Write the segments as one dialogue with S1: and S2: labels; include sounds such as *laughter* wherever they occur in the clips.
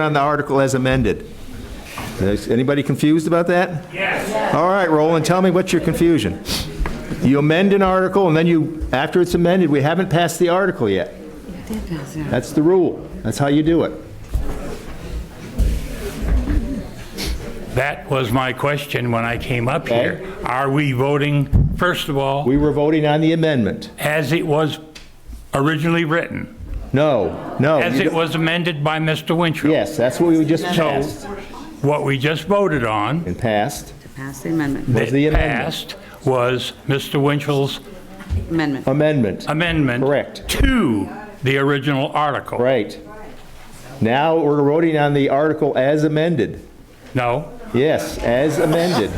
S1: on the article as amended. Is anybody confused about that? Yes. All right, Roland, tell me what's your confusion. You amend an article, and then you, after it's amended, we haven't passed the article yet. That's the rule. That's how you do it.
S2: That was my question when I came up here. Are we voting, first of all,
S1: We were voting on the amendment.
S2: as it was originally written,
S1: No, no.
S2: as
S1: you
S2: it
S1: don't-
S2: was amended by Mr. Winchell?
S1: Yes, that's what we just passed.
S2: What we just voted on,
S1: And passed
S3: Pass the amendment.
S1: was the
S2: that
S1: amendment.
S2: passed, was Mr. Winchell's
S3: Amendment.
S1: Amendment,
S2: amendment.
S1: Correct.
S2: To the original article.
S1: right. Now we're voting on the article as amended.
S2: No?
S1: Yes, as amended.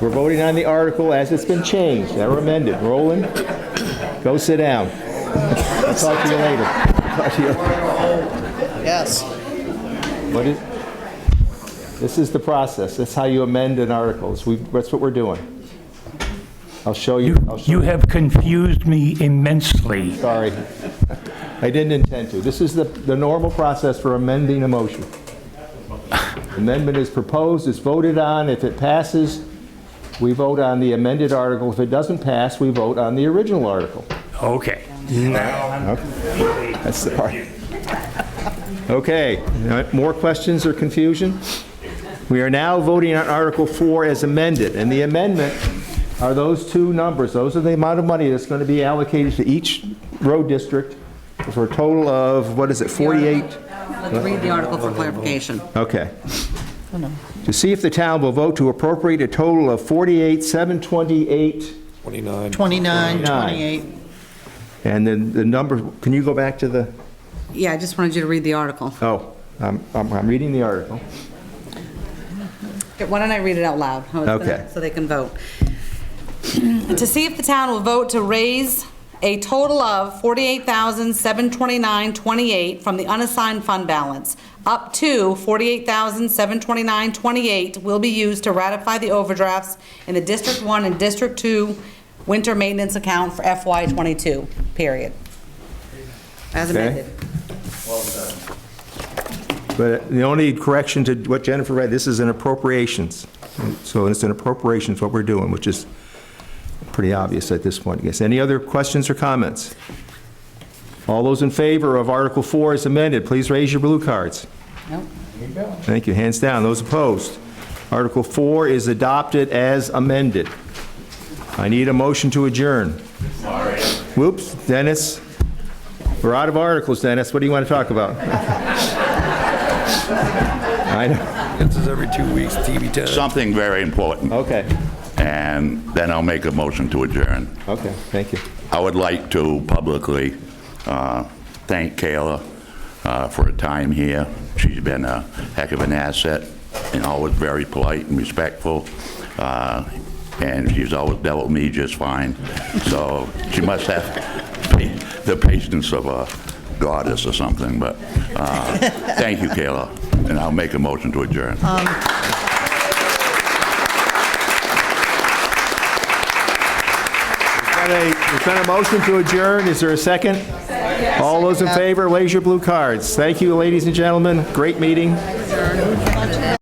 S1: We're voting on the article as it's been changed, never amended. Roland, go sit down. I'll talk to you later. Talk to you-
S4: Yes.
S1: What is, this is the process, that's how you amend an article, It's- we- that's what we're doing. I'll show you, I'll show
S2: You have confused me immensely.
S1: Sorry. I didn't intend to. This is the, the normal process for amending a motion. Amendment is proposed, it's voted on. If it passes, we vote on the amended article. If it doesn't pass, we vote on the original article.
S2: Okay. Now I'm completely
S1: That's the part. Okay, uh, more questions or confusion? We are now voting on Article 4 as amended, and the amendment are those two numbers. Those are the amount of money that's going to be allocated to each road district for a total of, what is it, 48?
S3: Let's read the article for clarification.
S1: Okay. To see if the town will vote to appropriate a total of 48, 728,
S4: 29,
S1: 29.
S4: 28.
S1: and then the number, can you go back to the?
S3: Yeah, I just wanted you to read the article.
S1: Oh, I'm, I'm I'm reading the article.
S3: Why don't I read it out loud? how it's been-
S1: Okay.
S3: So they can vote. *clears throat* To see if the town will vote to raise a total of 48729 28 from the unassigned fund balance. Up to 48729 28 will be used to ratify the overdrafts in the District 1 and District 2 winter maintenance account for FY '22, period. As
S1: Okay.
S3: amended.
S1: But the only correction to what Jennifer read, this is an appropriations. So it's an appropriations, what we're doing, which is pretty obvious at this point, I guess. Any other questions or comments? All those in favor of Article 4 as amended, please raise your blue cards.
S3: Nope.
S1: Thank you, hands down. Those opposed? Article 4 is adopted as amended. I need a motion to adjourn. Whoops, Dennis, we're out of articles, Dennis, what do you want to talk about? *laughs* I know,
S5: This is every two weeks, TV time.
S6: something very important,
S1: okay,
S6: and then I'll make a motion to adjourn.
S1: okay, thank you.
S6: I would like to publicly uh, thank Kayla uh, for her time here. She's been a heck of an asset and always very polite and respectful, uh, and she's always dealt with me just fine. So she must have *laughs* pa- the patience of a goddess or something, but uh, thank you, Kayla, and I'll make a motion to adjourn.
S1: Got a- There's been a motion to adjourn, is there a second? All those in favor, raise your blue cards. Thank you, ladies and gentlemen, great meeting.